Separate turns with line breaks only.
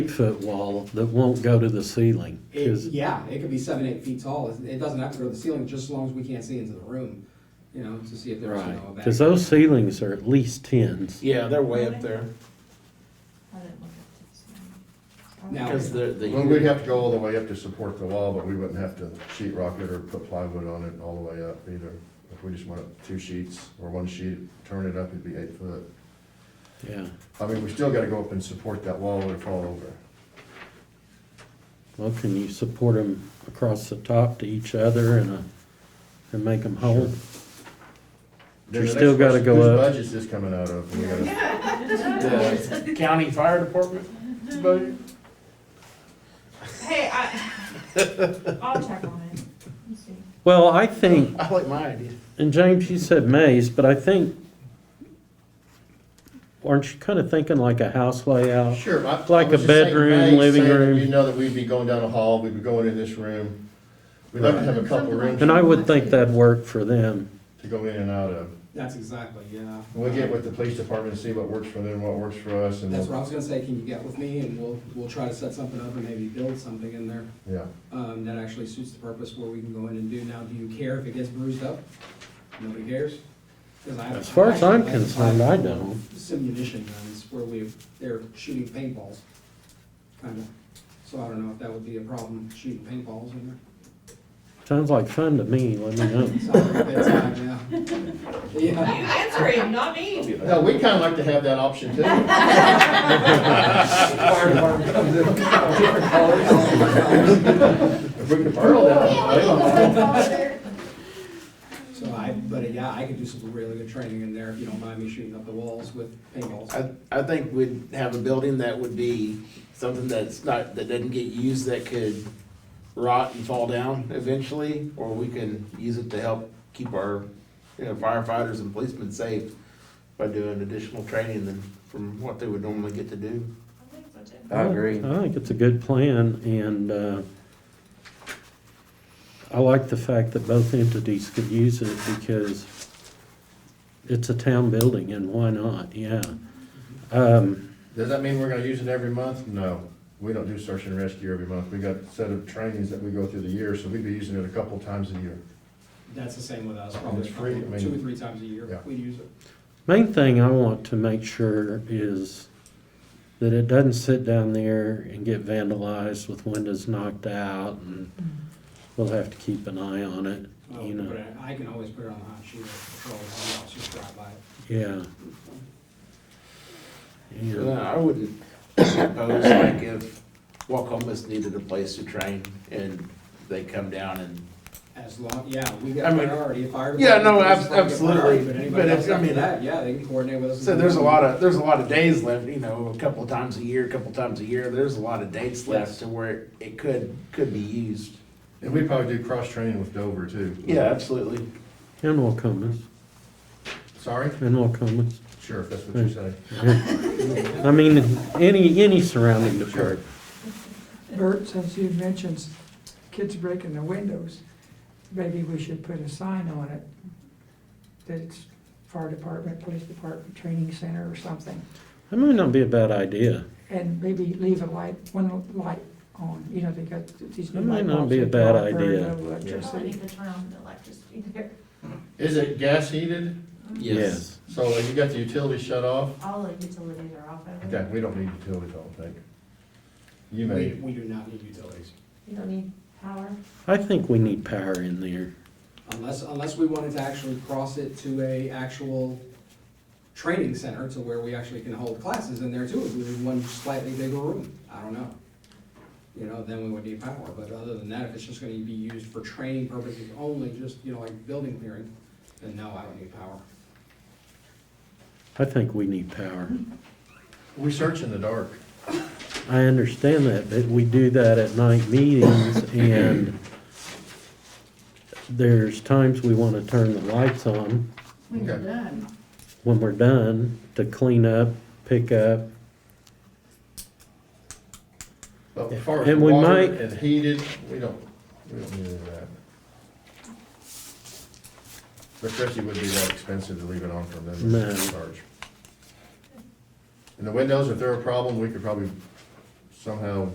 eight-foot wall that won't go to the ceiling.
It,
'cause-
yeah, it could be seven, eight feet tall. It- It doesn't have to go to the ceiling, just as long as we can't see into the room, you know, to see if there's, you
right,
know, a back.
because those ceilings are at least tens.
Yeah, they're way up there,
I didn't look at this one.
Now-
because they're, the.
Well, we'd have to go all the way up to support the wall, but we wouldn't have to sheet rock it or put plywood on it all the way up either. If we just went up two sheets or one sheet, turn it up, it'd be eight foot.
Yeah,
I mean, we still gotta go up and support that wall or fall over.
well, can you support them across the top to each other and, uh, and make them whole?
Then
You
the
still
next
gotta
question,
go up.
Whose budget's this coming out of? We gotta-
The county fire department budget?
Hey, I, I'll check on it, Let's see.
Well, I think,
I like my idea.
and James, you said maze, but I think, aren't you kind of thinking like a house layout?
Sure. I- I
Like a
was just saying,
bedroom,
Maggie's
living
saying that
room.
You know that we'd be going down a hall, we'd be going in this room. We'd like to have a couple rooms
And I would think that'd work for them.
to go in and out of.
That's exactly, yeah.
We'll get with the police department and see what works for them, what works for us and,
That's what I was gonna say, can you get with me and we'll, we'll try to set something up and maybe build something in there,
yeah.
um, that actually suits the purpose where we can go in and do. Now, do you care if it gets bruised up? Nobody cares? 'Cause I-
As far as I'm
I-
concerned, I don't.
Some munition guns where we, they're shooting paintballs, kinda. So I don't know if that would be a problem, shooting paintballs in there.
Sounds like fun to me, let me know.
Sorry, bedtime, yeah.
You
Yeah,
answer him, not me.
No, we kinda like to have that option too.
fire department comes in, different colors.
If we could burn all that.
So I, but yeah, I could do some really good training in there if you don't mind me shooting up the walls with paintballs.
I, I think we'd have a building that would be something that's not, that doesn't get used, that could rot and fall down eventually, or we can use it to help keep our, you know, firefighters and policemen safe by doing additional training than from what they would normally get to do. I agree.
I think it's a good plan, and uh, I like the fact that both entities could use it because it's a town building, and why not? Yeah. Um,
Does that mean we're gonna use it every month? No, we don't do search and rescue every month. We got a set of trainings that we go through the year, so we'd be using it a couple times a year.
That's the same with us, probably
It's free, I
a couple-
mean-
two or three times a
Yeah.
year we use it.
Main thing I want to make sure is that it doesn't sit down there and get vandalized with windows knocked out, and we'll have to keep an eye on it,
Well,
you know.
But I- I can always put it on the hot sheet, it's always on, I'll just drive by it.
Yeah. Yeah.
Yeah, I wouldn't suppose like if Wacomas needed a place to train and they come down and.
As long, yeah, we
I
got
mean-
priority, if fire.
Yeah, no,
department
ab-
is probably get priority,
absolutely.
But
But
anybody
if-
else
I
after
mean,
that, yeah, they can coordinate with us.
So there's a lot of, there's a lot of days left, you know, a couple of times a year, a couple of times a year, there's a lot of dates left to where it could, could be used.
And we probably do cross-training with Dover too.
Yeah, absolutely.
And Wacomas,
Sorry?
and Wacomas.
Sure, if that's what you say.
I mean, any, any surrounding department.
Bert, since you mentioned kids breaking the windows, maybe we should put a sign on it that it's fire department, police department, training center or something.
That might not be a bad idea.
And maybe leave a light, one light on, you know, they got these new
That might
light
not
bulbs.
be a
that
bad
draw very
idea.
low
Probably
electricity.
need to turn on the electricity there.
Is it gas heated? So have you got the utilities shut off?
All the utilities are off of
Okay,
it.
we don't need utilities, I don't think. You
We,
may,
we do not need utilities.
You don't need power.
I think we need power in there.
Unless, unless we wanted to actually cross it to a actual training center to where we actually can hold classes in there too, if we need one slightly bigger room, I don't know. You know, then we would need power, but other than that, if it's just gonna be used for training purposes only, just, you know, like building clearing, then no, I don't need power.
I think we need power.
we search in the dark.
I understand that, but we do that at night meetings and there's times we want to turn the lights on
Okay.
when we're done to clean up, pick up.
But as far as
And we
water
might-
and heated, we don't, we don't need any of that. Especially would be that expensive to leave it on for them
No.
to charge. And the windows, if they're a problem, we could probably somehow